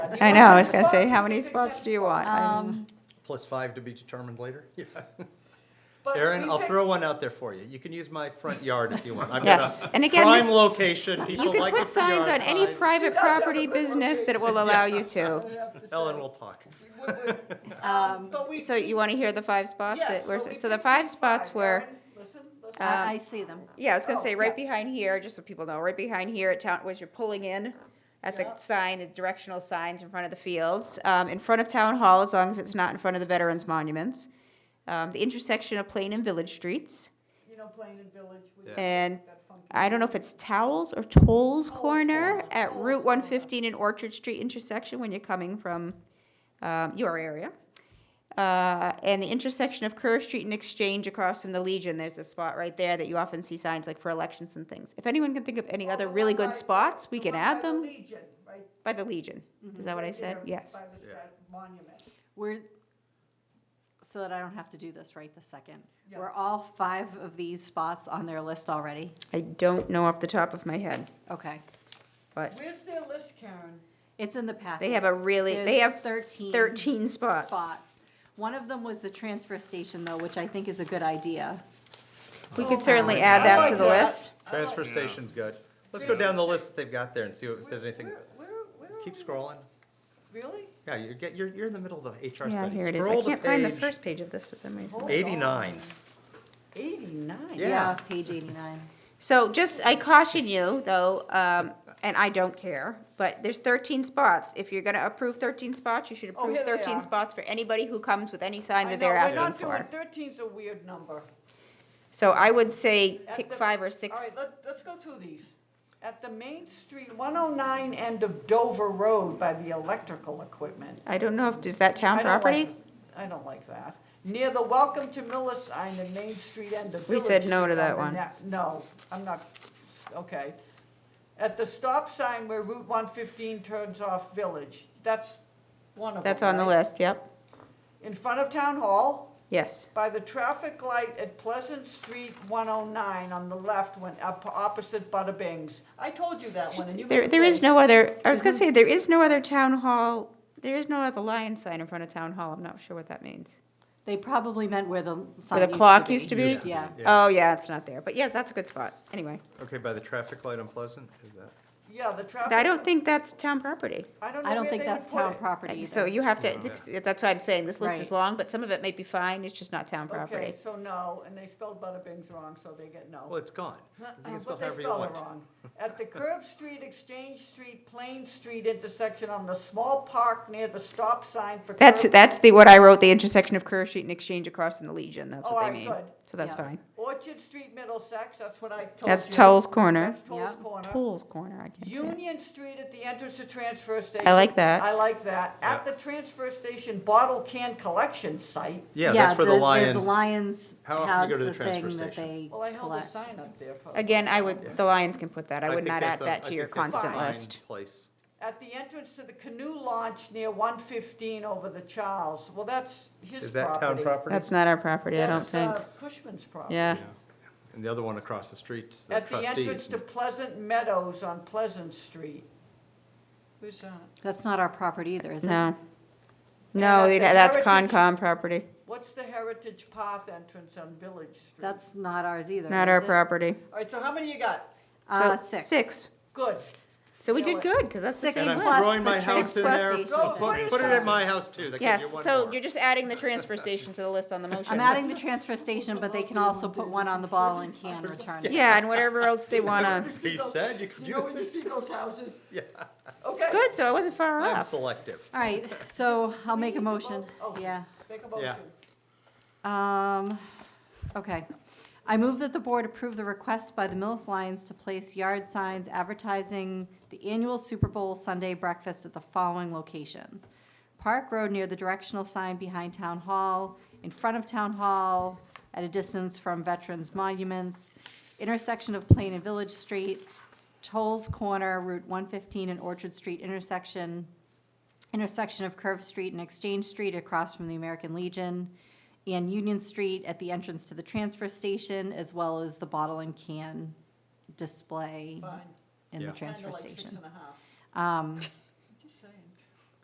I know, I was gonna say, how many spots do you want? I mean, Um, Plus five to be determined later? Yeah. But Aaron, we I'll picked- throw one out there for you. You can use my front yard if you want. I've got a Yes, and again, Prime this- location, You people could like the put signs on yard any signs. private does have a property good business that it will allow you to. We have to say- Ellen will talk. we would- would- Um, But we- So you want to hear the five spots Yes, that were, so we so the picked five spots were, Aaron, Listen, listen. uh, I I see them. yeah, I was gonna Oh, say, yeah. right behind here, just so people know, right behind here at town, was you're pulling in at the Yeah. sign, the directional signs in front of the fields, um, in front of town hall, as long as it's not in front of the veterans monuments. Um, the intersection of Plain and Village Streets, You know, Plain and Village, we Yeah. and got funky. I don't know if it's Towels or Tolls Corner Towles, at Towles Route Corner. one fifteen and Orchard Street intersection when you're coming from, um, your area. Uh, and the intersection of Curve Street and Exchange across from the Legion, there's a spot right there that you often see signs like for elections and things. If anyone can think of any Oh, other the really one good by- spots, we the can one add by the them Legion, right by the Legion. Is that what I right said? there Yes. by the Yeah. stat- Monument. We're, so that I don't have to do this right this second. Yeah. Were all five of these spots on their list already? I don't know off the top of my head, Okay. but Where's their list, Karen? It's in the packet. they have a really, they There's have 13. thirteen spots. spots. One of them was the transfer station though, which I think is a good idea. We could certainly my add God. I that to like the that. list. Transfer station's good. Let's go down the list that they've got there and see if there's anything. Where, where, where? are Keep we? scrolling. Really? Yeah, you're, get- you're, you're in the middle of the HR study. Yeah, here it is. I Scroll to can't find the page first page of this for some reason. Eighty-nine. Eighty-nine? Yeah. Page eighty-nine. So just, I caution you though, um, and I don't care, but there's thirteen spots. If you're gonna approve thirteen spots, you should Oh, here approve they thirteen are. spots for anybody who comes with any I sign know, that they're we're asking not doing, for. thirteen's a weird number. So I would say At pick the- five or All right, six. let, let's go through these. At the Main Street, one oh nine end of Dover Road by the electrical equipment. I don't know if, is that town I don't like- property? I don't like that. Near the Welcome to Miller sign, the Main Street end of Village. We said no Street to that on the one. ne- No, I'm not, okay. At the stop sign where Route one fifteen turns off Village, that's one of them. That's on the right? list, yep. In front of Town Hall. Yes. By the traffic light at Pleasant Street 109 on the left, when, up opposite Bada Bing's. I told you that one, and you. Mm-hmm. There, made there is face. no other, I was gonna say, there is no other town hall, there is no other lion sign in front of town hall. I'm not sure what that means. They probably meant where the sign Where the clock used to be? Yeah. Yeah. Oh, yeah, it's not there. But yes, that's a good spot. Anyway, Okay, by the traffic light on Pleasant, is that? Yeah, the traffic. I don't think that's town property. don't I know don't where think they would that's put town it. property either. So you have to, Yeah. that's why I'm saying this list is Right. long, but some of it may be fine. It's just not town Okay, property. so no, and they spelled Bada Bing's wrong, so they get no. Well, it's gone. You Uh, can spell But they however you spelled want. it wrong. At the Curve Street, Exchange Street, Plain Street intersection on the small park near the stop sign for. That's, curb- that's the, what I wrote, the intersection of Curve Street and Exchange across from the Legion. That's Oh, what all they right, mean. good. So that's Yeah. fine. Orchard Street, Middlesex, that's what I told you. That's Toll's Corner. That's Toll's Yeah. Corner. Toll's Corner, I can't say. it. Union Street at the entrance to transfer station. I like that. I like that. At the Yeah. transfer station bottle can collection site. Yeah, that's where the The lions, Lions How often has do you go to the the transfer thing that station? they Well, I held a collect. sign up there. for- Again, I would, the Lions can put that. I I would think not add that's a- that I to your think that's a constant fine list. Place. At the entrance to the canoe launch near one fifteen over the Charles. Well, that's his property. Is that town property? That's not our property, I don't That's, think. uh, Cushman's property. Yeah. And the other one across the street's the At the entrance trustees. to Pleasant Meadows on Pleasant Street. Who's that? That's not our property either, is it? No. at No, the they'd- that's Heritage- Concom property, What's the Heritage Path entrance on Village Street? That's not ours either. not is our it? property. All right, so how many you got? Uh, So, six. Six. Good. So we You know did what? good, because that's the Six same And plus I'm list. throwing my the house in plus there. each. Go, what Put is put it that? at my house too. That gives you Yes, one so more. you're just adding the transfer station to the list on the motion. I'm adding the transfer station, but they can also put one on the ball and can return it. Yeah, and whatever else they want to. He said you could You know use when you it. see those houses? Yeah, Okay. Good, so I wasn't far I'm off. selective. All right, so I'll make a need to motion. vote. Oh. Yeah. Make a motion. Um, okay. I move that the board approve the request by the Millis Lions to place yard signs advertising the annual Super Bowl Sunday breakfast at the following locations. Park Road near the directional sign behind Town Hall, in front of Town Hall, at a distance from Veterans Monuments, intersection of Plain and Village Streets, Toll's Corner, Route 115 and Orchard Street intersection, intersection of Curve Street and Exchange Street across from the American Legion, and Union Street at the entrance to the transfer station, as well as the bottle and can display Fine. in the Yeah. transfer Kinda like six station. and a half. Um,